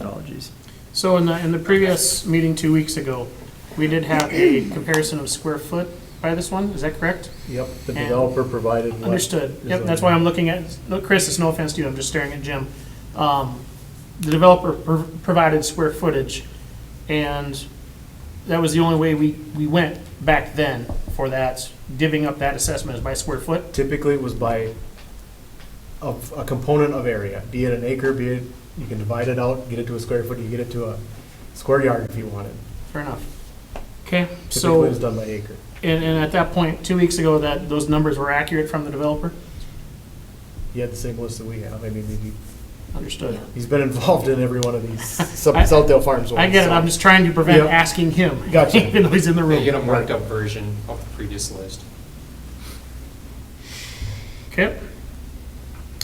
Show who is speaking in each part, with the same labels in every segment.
Speaker 1: methodologies.
Speaker 2: So in the, in the previous meeting two weeks ago, we did have a comparison of square foot by this one, is that correct?
Speaker 3: Yep, the
Speaker 2: And-
Speaker 3: developer provided what.
Speaker 2: Understood,
Speaker 3: is
Speaker 2: yep,
Speaker 3: on
Speaker 2: that's
Speaker 3: there.
Speaker 2: why I'm looking at, look, Chris, it's no offense to you, I'm just staring at Jim. Um, The developer pro- provided square footage, and that was the only way we, we went back then for that, divvying up that assessment is by square foot.
Speaker 3: Typically, it was by a, a component of area, be it an acre, be it, you can divide it out, get it to a square foot, you get it to a square yard if you wanted.
Speaker 2: Fair enough. Okay, so,
Speaker 3: Typically, it's done by acre.
Speaker 2: and, and at that point, two weeks ago, that, those numbers were accurate from the developer?
Speaker 3: He had the same list that we have, I mean, he,
Speaker 2: Understood.
Speaker 3: he's been involved in every one of these
Speaker 2: I-
Speaker 3: South Southdale Farms.
Speaker 2: I get it,
Speaker 3: ones,
Speaker 2: I'm
Speaker 3: so.
Speaker 2: just trying to prevent
Speaker 3: Yep.
Speaker 2: asking him.
Speaker 3: Gotcha.
Speaker 2: Even though he's in the
Speaker 4: They get
Speaker 2: room.
Speaker 4: a marked up version of the previous list.
Speaker 2: Okay.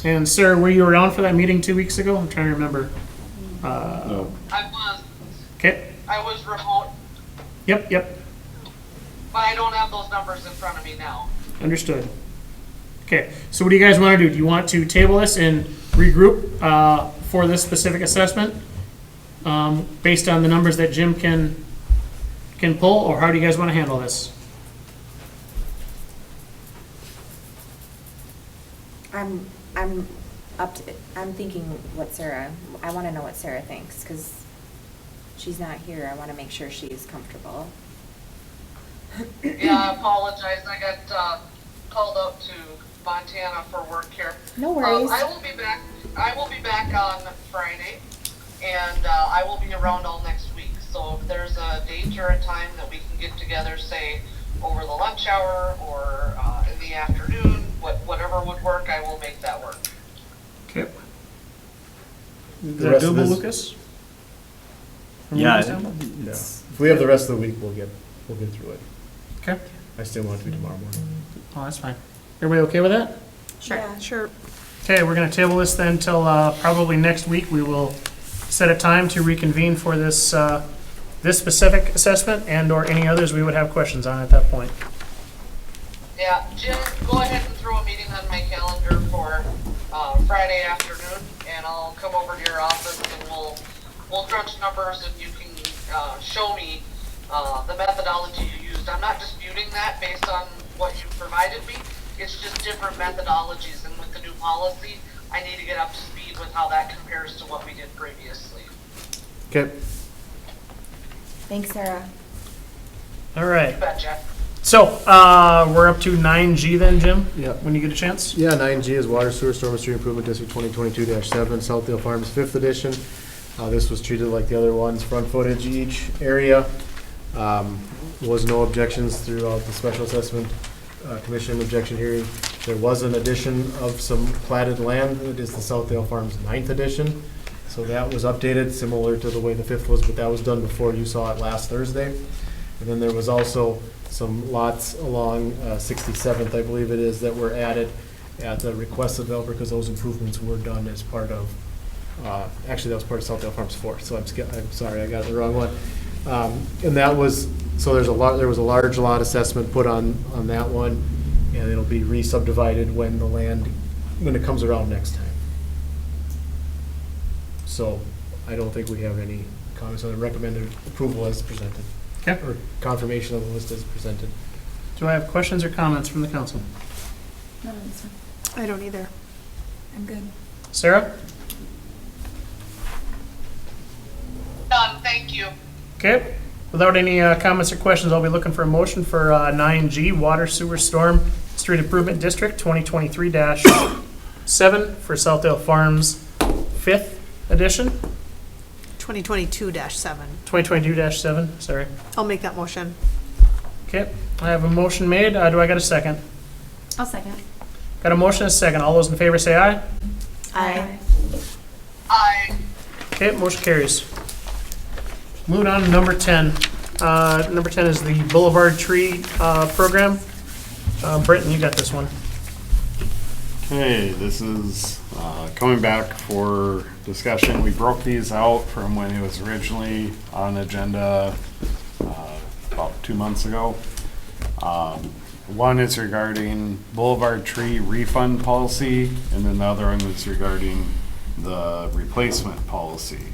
Speaker 2: And sir, were you around for that meeting two weeks ago? I'm trying to remember. Uh,
Speaker 5: I was,
Speaker 2: Okay,
Speaker 5: I was remote,
Speaker 2: yep, yep,
Speaker 5: but I don't have those numbers in front of me now.
Speaker 2: understood. Okay, so what do you guys want to do? Do you want to table this and regroup uh, for this specific assessment? um, Based on the numbers that Jim can, can pull, or how do you guys want to handle this?
Speaker 6: I'm, I'm up to, I'm thinking what Sarah, I want to know what Sarah thinks, because she's not here. I want to make sure she is comfortable.
Speaker 5: Yeah, I apologize, I got, uh, called up to Montana for work here.
Speaker 6: No
Speaker 5: Um,
Speaker 6: worries.
Speaker 5: I will be back, I will be back on Friday, and, uh, I will be around all next week. So if there's a date or a time that we can get together, say, over the lunch hour or, uh, in the afternoon, what, whatever would work, I will make that work.
Speaker 2: Okay. Is
Speaker 3: The
Speaker 2: that
Speaker 3: rest of
Speaker 2: doable,
Speaker 3: this-
Speaker 2: Lucas? From
Speaker 1: Yeah,
Speaker 2: Lucas down?
Speaker 3: Yeah.
Speaker 1: it's-
Speaker 3: If we have the rest of the week, we'll get, we'll get through it.
Speaker 2: Okay,
Speaker 3: I still want it to be tomorrow morning.
Speaker 2: oh, that's fine. Everybody okay with that?
Speaker 6: Sure.
Speaker 7: Sure.
Speaker 2: Okay, we're gonna table this then till, uh, probably next week. We will set a time to reconvene for this, uh, this specific assessment and/or any others we would have questions on at that point.
Speaker 5: Yeah, Jim, go ahead and throw a meeting on my calendar for uh, Friday afternoon, and I'll come over to your office and we'll, we'll crunch numbers and you can uh, show me uh, the methodology you used. I'm not disputing that based on what you provided me. It's just different methodologies, and with the new policy, I need to get up to speed with how that compares to what we did previously.
Speaker 3: Okay.
Speaker 6: Thanks, Sarah.
Speaker 2: All right,
Speaker 5: You betcha.
Speaker 2: so, uh, we're up to nine G then, Jim?
Speaker 3: Yep.
Speaker 2: When you get a chance?
Speaker 3: Yeah, nine G is Water Sewer Storm and Street Improvement District twenty twenty-two seven, Southdale Farms, fifth edition. Uh, this was treated like the other ones, front footage each area. Um, was no objections throughout the special assessment, uh, commission objection hearing. There was an addition of some platted land, it is the Southdale Farms ninth edition. So that was updated, similar to the way the fifth was, but that was done before you saw it last Thursday. And then there was also some lots along uh, 67th, I believe it is, that were added at the request of developer because those improvements were done as part of, uh, actually, that was part of Southdale Farms 4, so I'm, sk- I'm sorry, I got the wrong one. Um, And that was, so there's a lot, there was a large lot assessment put on, on that one, and it'll be re-subdivided when the land, when it comes around next time. So I don't think we have any comments on the recommended approval as presented
Speaker 2: Okay,
Speaker 3: or confirmation of the list as presented.
Speaker 2: do I have questions or comments from the council?
Speaker 7: I don't either.
Speaker 8: I'm good.
Speaker 2: Sarah?
Speaker 5: Done, thank you.
Speaker 2: Okay, without any uh, comments or questions, I'll be looking for a motion for uh, nine G, Water Sewer Storm Street Improvement District, twenty twenty-three seven for Southdale Farms, fifth edition,
Speaker 7: 2022-7.
Speaker 2: twenty twenty-two seven, sorry.
Speaker 7: I'll make that motion.
Speaker 2: Okay, I have a motion made, Uh, do I got a second?
Speaker 8: I'll second.
Speaker 2: Got a motion and a second, all those in favor say aye.
Speaker 7: Aye.
Speaker 5: I,
Speaker 2: Okay, motion carries. Moving on to number 10. Uh, Number 10 is the Boulevard Tree uh, Program. Uh, Britton, you got this one.
Speaker 9: Okay, this is uh, coming back for discussion. We broke these out from when it was originally on agenda uh, about two months ago. Um, One is regarding Boulevard Tree refund policy, and then the other one is regarding the replacement policy.